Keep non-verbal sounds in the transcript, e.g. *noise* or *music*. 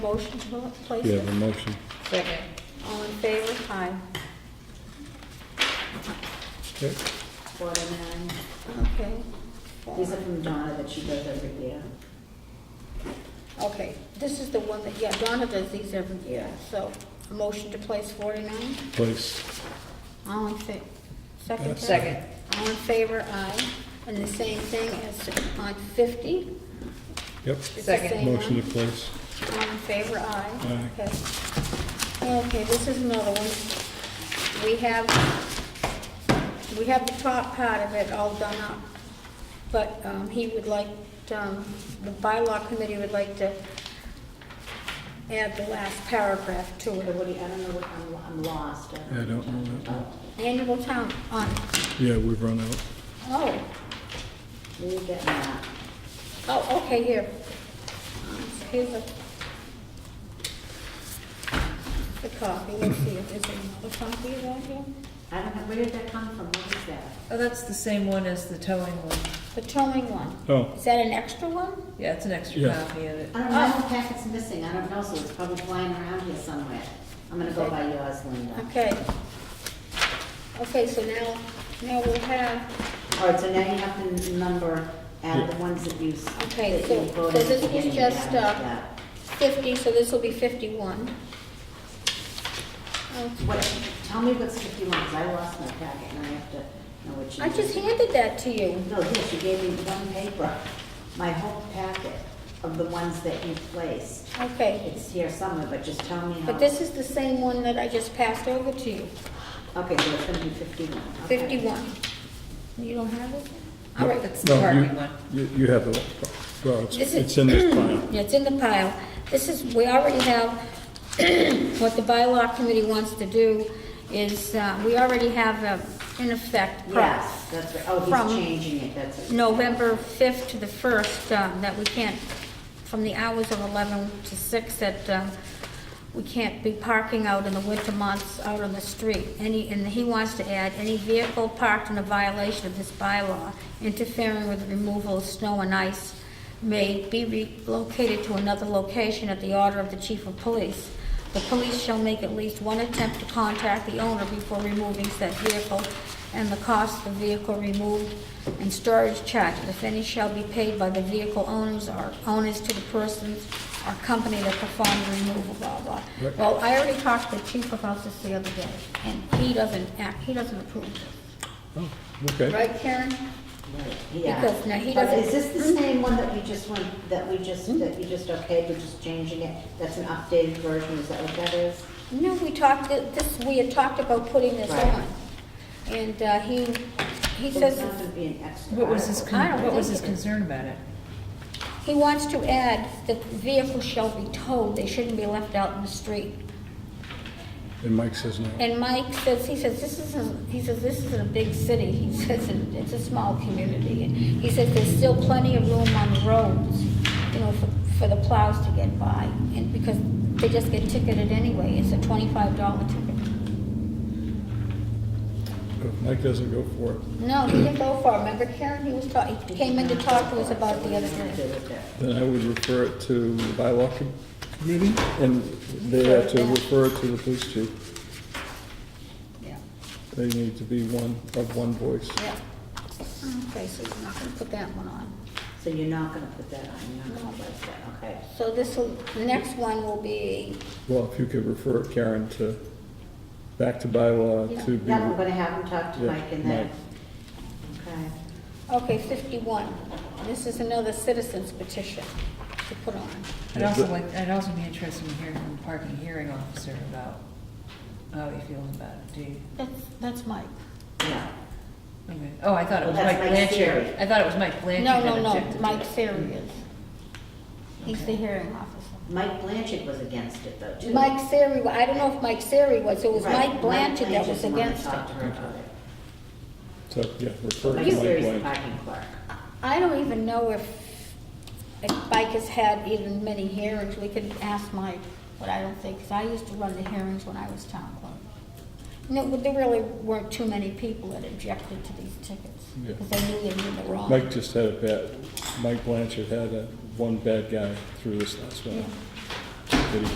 Motion to pla- place You it? have a motion. Second. All in favor? Aye. Okay. Watermelon. Okay. These are from Donna that she does every year. Okay, this is the one that, yeah, Donna does these every year, Yeah. so, a motion to place forty-nine? Place. All in fa, Uh, second? Second. All in favor? Aye. And the same thing as on fifty? Yep. It's the Second. same one? Motion to place. All in favor, aye. Aye. Okay. Okay, this is another one. We have, we have the top part of it all done up, but um, he would like, um, the bylaw committee would like to add the last paragraph to But it. what do you, I don't know what, I'm, I'm lost. Uh, I don't know that one. Annual town, on, Yeah, we've run out. oh, Where you getting that? oh, okay, here. Here's a, the copy, let's see if there's another copy of that here. I don't know, where did that come from? What is that? Oh, that's the same one as the towing one. The towing one. Oh, Is that an extra one? Yeah, it's an extra Yeah. copy of it. I don't know, I have a Oh, packet's missing, I don't know, so it's probably flying around here somewhere. I'm gonna go by yours, Linda. Okay. Okay, so now, now we'll have, All right, so now you have to number, add the ones that you. s- Okay, that so- you so voted this at the is beginning, just, yeah, uh, yeah. fifty, so this will be fifty-one. Oh, What, tell me what's fifty-one, 'cause I lost my packet and I have to know what you. I just handed that to you. No, yes, you gave me one paper, my whole packet of the ones that you placed. Okay, It's here somewhere, but just tell me how. but this is the same one that I just passed over to you, Okay, so it's gonna be fifty-one. okay. fifty-one. You don't have it? All right, it's the no, you, parking one. you you have it. Well, it's, This is- it's *clears throat* in this *clears throat* pile. Yeah, it's in the pile. This is, we already have, *clears throat* what the bylaw committee wants to do is, uh, we already have, a, in effect, press. Yes, that's right, oh, From- he's changing it, that's it. November 5th to the 1st, um, that we can't, from the hours of 11 to 6, that um, we can't be parking out in the winter months out on the street. Any, and he wants to add, any vehicle parked in a violation of this bylaw interfering with the removal of snow and ice may be relocated to another location at the order of the chief of police. The police shall make at least one attempt to contact the owner before removing said vehicle, and the cost of the vehicle removed and storage charge, if any, shall be paid by the vehicle owners or owners to the persons or company that performed the removal, blah, blah. Right. Well, I already talked to the chief about this the other day, and he doesn't act, he doesn't approve this. Oh, okay. Right, Karen? Right, Yeah. Because now he But doesn't- Hmm? Is this the same one that we just went, that we just, that you just okayed, we're just changing it? That's an updated version, is that what that is? No, we talked, this, we had talked about putting this Right. on, and uh, he, he It's says. not gonna be an extra. What was his, article. I don't con- what was think his it- concern about it? He wants to add that vehicles shall be towed, they shouldn't be left out in the street. And Mike says no. And Mike says, he says, this isn't, he says, this isn't a big city, he *laughs* says, "It- it's a small community. And he says, there's still plenty of room on the roads, you know, for, for the plows to get by, and because they just get ticketed anyway, it's a twenty-five dollar ticket. Mike doesn't go for it. No, he didn't go far, remember Karen, he was talking, he came in to talk to us about it the other Nothing to day. do with that. Then I would refer it to the bylaw committee and they have to refer it to the police chief. Yeah, They need to be one, of one voice. yeah. Okay, so you're not gonna put that one on. So you're not gonna put that on, you're not gonna put that, okay. So this will, the next one will be, Well, if you could refer Karen to, back to bylaw to be. Now I'm gonna have him talk to Yeah, Mike and then, Mike. okay. okay, 51. This is another citizen's petition to put on. I'd Yeah, also but- like, I'd also be interested in hearing from the parking hearing officer about how he feels about it, do you? That's, that's Mike. Yeah. Okay. Oh, I thought it was Well, that's Mike Mike Blanchard. Siri. I thought it was Mike Blanchard No, no, that no, objected. Mike Siri is. He's the hearing officer. Mike Blanchard was against it though, too. Mike Siri, I don't know if Mike Siri was, it was Right, Mike Blanchard that was Blanchard's the one against talked to it. her about it. So, yeah, refer Mike it to Mike Siri's the Blanchard. parking clerk. I don't even know if, if Mike has had even many hearings, we could ask Mike, but I don't think, 'cause I used to run the hearings when I was town clerk. No, but there really weren't too many people that objected to these tickets, Yeah. because they knew they were wrong. Mike just had a bad, Mike Blanchard had a, one bad guy through this last Yeah. one.